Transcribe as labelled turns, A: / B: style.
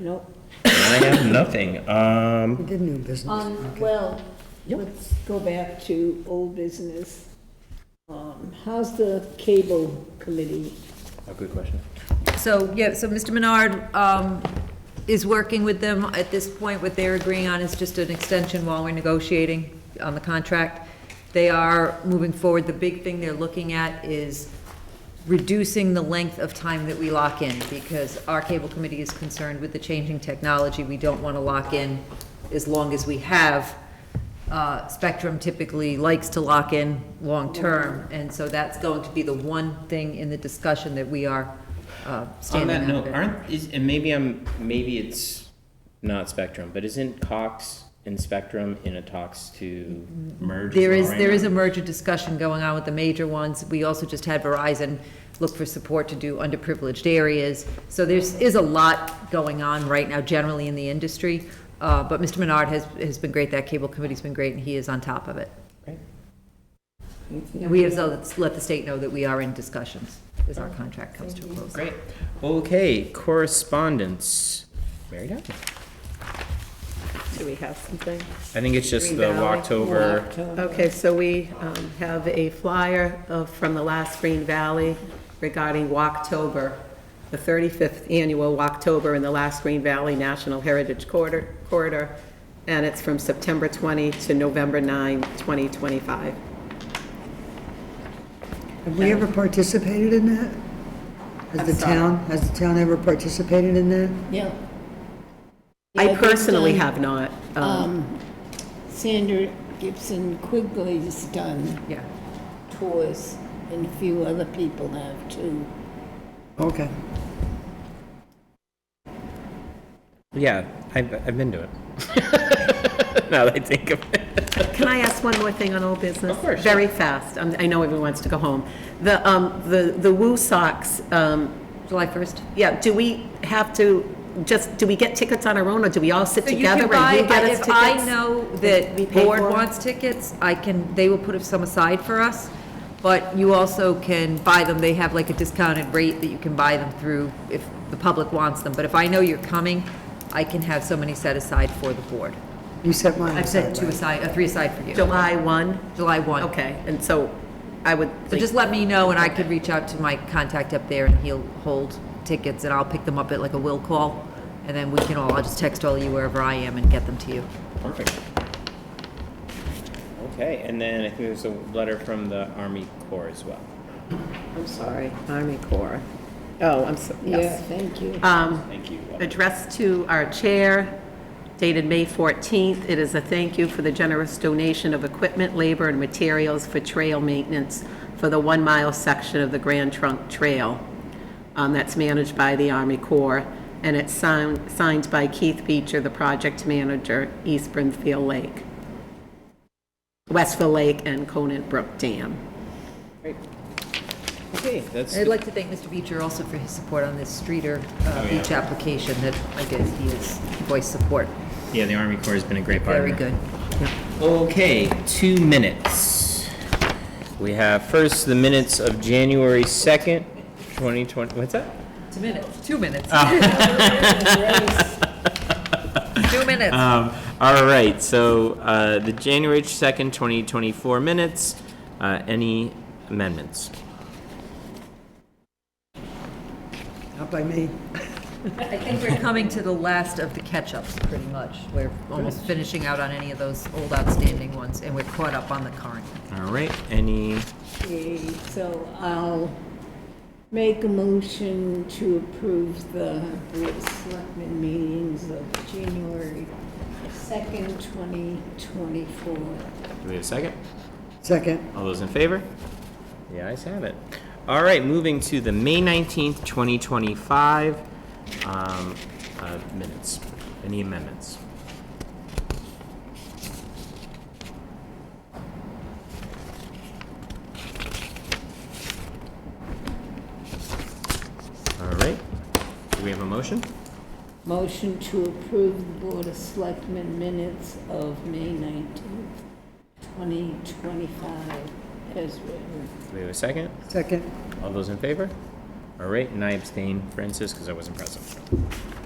A: Nope.
B: I have nothing. Um,
C: We did new business.
A: Um, well, let's go back to old business. Um, how's the cable committee?
B: a good question.
D: So, yeah, so Mr. Menard um, is working with them at this point. What they're agreeing on is just an extension while we're negotiating on the contract. They are moving forward. The big thing they're looking at is reducing the length of time that we lock in, because our cable committee is concerned with the changing technology. We don't want to lock in as long as we have. Uh, Spectrum typically likes to lock in long-term, and so that's going to be the one thing in the discussion that we are uh,
B: On
D: standing
B: that
D: up
B: note,
D: in.
B: aren't is and maybe I'm maybe it's not Spectrum, but isn't Cox and Spectrum in a talks to merge? as
D: There
B: well
D: is,
B: right
D: there
B: now?
D: is a merger discussion going on with the major ones. We also just had Verizon look for support to do underprivileged areas. So there's, is a lot going on right now generally in the industry. Uh, But Mr. Menard has, has been great, that cable committee's been great, and he is on top of it.
B: Great.
D: And we have to let the state know that we are in discussions as our contract comes to a close.
B: Great. Okay, correspondence. Mary Dow?
E: Do we have something?
B: I think it's just
E: Green
B: the
E: Valley.
B: Walktober.
E: Okay, so we um, have a flyer of, from the last Green Valley regarding Walktober, the 35th annual Walktober in the last Green Valley National Heritage Corridor, Corridor, and it's from September 20 to November 9, 2025.
C: Have we ever participated in that? Has the town, has the town ever participated in that?
A: Yeah.
E: I personally have not. um,
A: Sandra Gibson Quigley's done
D: Yeah.
A: tours, and a few other people have too.
C: Okay.
B: Yeah, I've, I've been to it. now that I think of it.
E: Can I ask one more thing on old business?
B: Of course.
E: Very fast. Um, I know everyone wants to go home. The, um, the the Woo Sox, um,
D: July 1st?
E: yeah, do we have to, just, do we get tickets on our own, or do we all sit
D: So you can
E: together
D: buy-
E: and you get us
D: If I
E: tickets?
D: know that
E: We
D: the
E: pay
D: board
E: for it?
D: wants tickets, I can, they will put some aside for us, but you also can buy them, they have like a discounted rate that you can buy them through if the public wants them, but if I know you're coming, I can have so many set aside for the board.
C: You set mine
D: I've set
C: aside,
D: two
C: right?
D: aside, uh, three aside for you,
E: July 1?
D: July 1.
E: Okay, and so I would,
D: So
E: think-
D: just let me know, and I could reach out to my contact up there, and he'll hold tickets, and I'll pick them up at like a will call, and then we can all, I'll just text all you wherever I am and get them to you.
B: Perfect. Okay, and then I think there's a letter from the Army Corps as well.
E: I'm sorry, Army Corps. Oh, I'm, so-
A: Yeah,
E: yes.
A: thank you.
E: Um,
B: Thank you.
E: addressed to our chair, dated May 14th. It is a thank you for the generous donation of equipment, labor, and materials for trail maintenance for the one-mile section of the Grand Trunk Trail um, that's managed by the Army Corps, and it's signed signed by Keith Beecher, the project manager, East Brimfield Lake, Westville Lake, and Conant Brook Dam.
B: Okay, that's.
D: I'd like to thank Mr. Beecher also for his support on this Streeter uh, Beach application that I guess he has voiced support.
B: Yeah, the Army Corps has been a great partner.
D: Very good.
B: Okay, two minutes. We have first the minutes of January 2nd, 2020, what's that?
D: Two minutes, two minutes. Two minutes.
B: Um, all right, so, uh, the January 2nd, 2024 minutes, uh, any amendments?
C: Not by me.
D: I think we're coming to the last of the catch-ups, pretty much. We're almost finishing out on any of those old outstanding ones, and we're caught up on the current.
B: All right, any,
A: Okay, so I'll make a motion to approve the Board of Selectmen meetings of January 2nd, 2024.
B: do we have a second?
C: Second,
B: All those in favor? The ayes have it. All right, moving to the May 19th, 2025, um, uh, minutes. Any amendments? All right, do we have a motion?
A: Motion to approve the Board of Selectmen minutes of May 19th, 2025, as written.
B: Do we have a second?
C: second.
B: All those in favor? All right, and I abstain, Francis, because I wasn't present.